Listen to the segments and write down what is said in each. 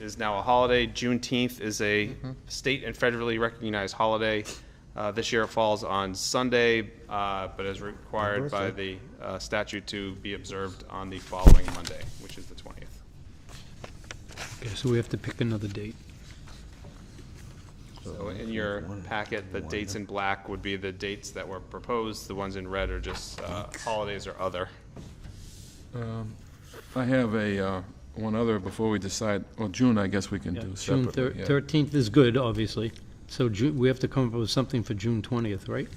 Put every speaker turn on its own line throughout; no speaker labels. is now a holiday. Juneteenth is a
Mm-hmm.
state and federally recognized holiday. Uh, This year it falls on Sunday, uh, but is required by the uh, statute to be observed on the following Monday, which is the 20th.
Okay, so we have to pick another date.
So in your packet, the dates in black would be the dates that were proposed. The ones in red are just uh, holidays or other.
I have a, uh, one other before we decide, well, June, I guess we can do
June thir-
separately. yeah.
13th is good, obviously. So Ju, we have to come up with something for June 20th, right?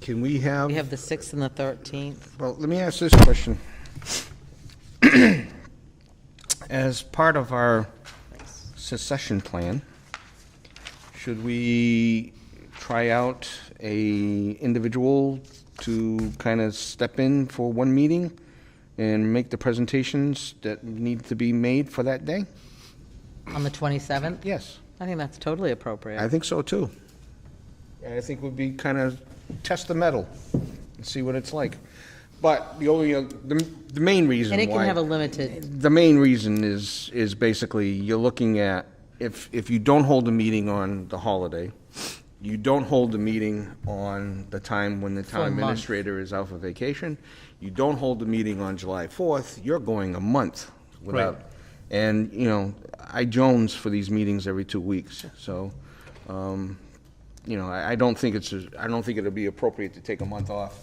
Can we have,
We have the 6th and the 13th.
well, let me ask this question. As part of our secession plan, should we try out a individual to kind of step in for one meeting and make the presentations that need to be made for that day?
On the 27th?
Yes,
I think that's totally
I
appropriate.
think so too. And I think would be kind of test the metal and see what it's like. But the only, uh, the, the main reason
And
why.
it can have a limited,
The main reason is, is basically you're looking at, if, if you don't hold a meeting on the holiday, you don't hold the meeting on the time when the
a
town
month.
administrator is out for vacation, you don't hold the meeting on July 4th, you're going a month without. And, you know, I Jones for these meetings every two weeks, so, um, you know, I, I don't think it's, a- I don't think it'll be appropriate to take a month off.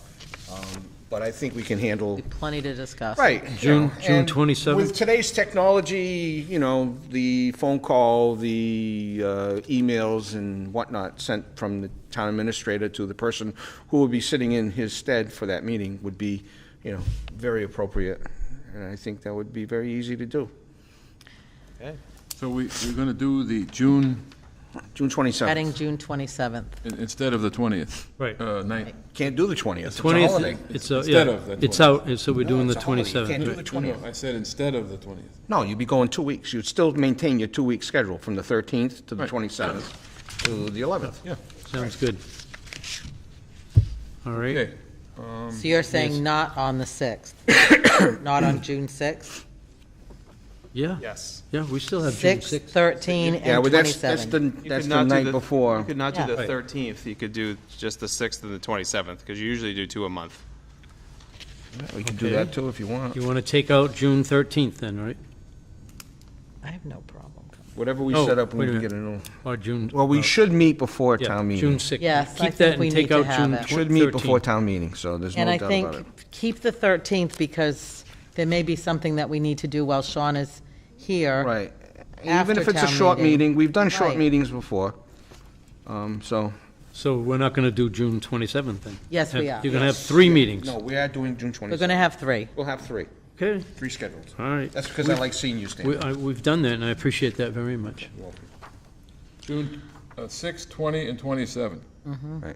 Um, But I think we can handle.
plenty to discuss.
Right.
June-
yeah.
June
And
27th?
With today's technology, you know, the phone call, the uh, emails and whatnot sent from the town administrator to the person who will be sitting in his stead for that meeting would be, you know, very appropriate. And I think that would be very easy to do.
So we, we're going to do the June,
June 27th.
Adding June 27th.
in- instead of the 20th.
Right.
Uh, ninth.
Can't do the 20th. It's a
20th,
holiday.
it's, a-
Instead of
yeah,
the
it's out, and so we're doing
No,
the
it's a holiday. You
27th.
can't do
right.
the
No, no,
20th.
I said instead of the 20th.
No, you'd be going two weeks. You'd still maintain your two-week schedule from the 13th to the
Right.
27th to the 11th.
Yeah.
Sounds good. All right,
Okay,
Um,
So you're saying not on the 6th? Not on June 6th?
yeah,
Yes.
yeah, we still have Uh, June
6,
6th.
13,
Yeah,
and
well, that's, that's the,
27.
You
that's
could
the
not do
night before.
You could not do
Yeah.
the
Right.
13th. You could do just the 6th and the 27th, because you usually do two a month.
We can do
Okay.
that too if you want.
You want to take out June 13th then, right?
I have no problem.
Whatever we
Oh,
set up, we
wait a
can
minute.
get it on.
Or June?
Well, we
uh,
should meet before
yeah,
town
June
meeting.
6th.
Yes, I
Keep that
think
and
we
take
need to
out
have
June
it.
Should meet before
13th.
town meeting, so there's no
And I
doubt about it.
think, keep the 13th, because there may be something that we need to do while Sean is here.
Right. Even
after
if it's a
town
short
meeting.
meeting, we've done short
Right.
meetings before. Um, so.
So we're not going to do June 27th then?
Yes, we
Have-
are.
You're going to have three meetings.
we are doing June
We're going to have three.
We'll have three,
Okay,
three scheduled.
all right.
That's because I like seeing you,
We,
Stan.
I, we've done that, and I appreciate that very much.
June uh, 6, 20, and 27.
Right.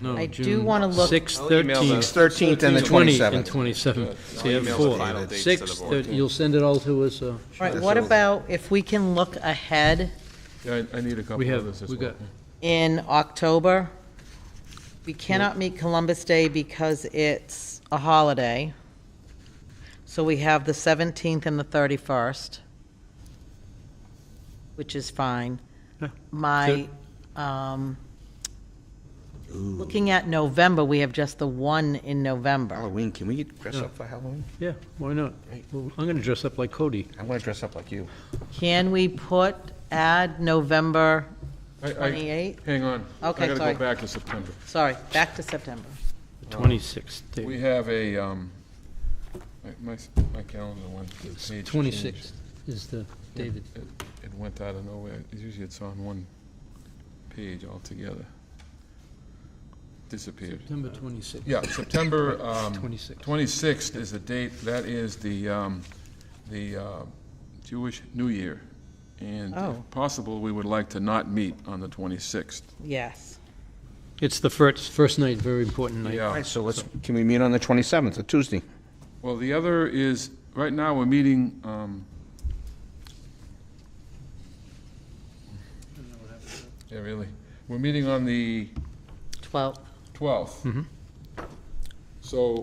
No,
I
June
do wanna look-
Six,
I'll email
thirteen,
those.
13th and the
twenty, and
27th.
twenty-seven. So you have
email the final
four.
dates to the
Six,
board.
thir- you'll send it all to us, uh,
All right,
Sure.
what
So-
about if we can look ahead
Yeah, I, I need a
we
couple others
have,
as
we
well.
got,
in October? We cannot meet Columbus Day because it's a holiday. So we have the 17th and the 31st, which is fine.
Yeah.
My, um, looking at November, we have just the one in November.
Halloween, can we dress up for Halloween?
yeah, why not? Well, I'm gonna dress up like Cody.
I want to dress up like you.
Can we put, add November
I- I-
28th?
Hang on.
Okay,
I got to
sorry.
go back to September.
Sorry, back to September.
Twenty-sixth,
We
David.
have a, um, my- my, s- my calendar went, the page changed.
Twenty-sixth is the, David.
It- It went out of nowhere. Usually it's on one page altogether. Disappeared.
September twenty-sixth.
Yeah, September um,
26th.
26th is the date, that is the, um, the uh, Jewish New Year. And
Oh.
if possible, we would like to not meet on the 26th.
Yes.
It's the first, first night, very important night.
All
Yeah.
right, so let's, can we meet on the 27th, a Tuesday?
Well, the other is, right now, we're meeting, um, yeah, really, we're meeting on the
12th.
12th. So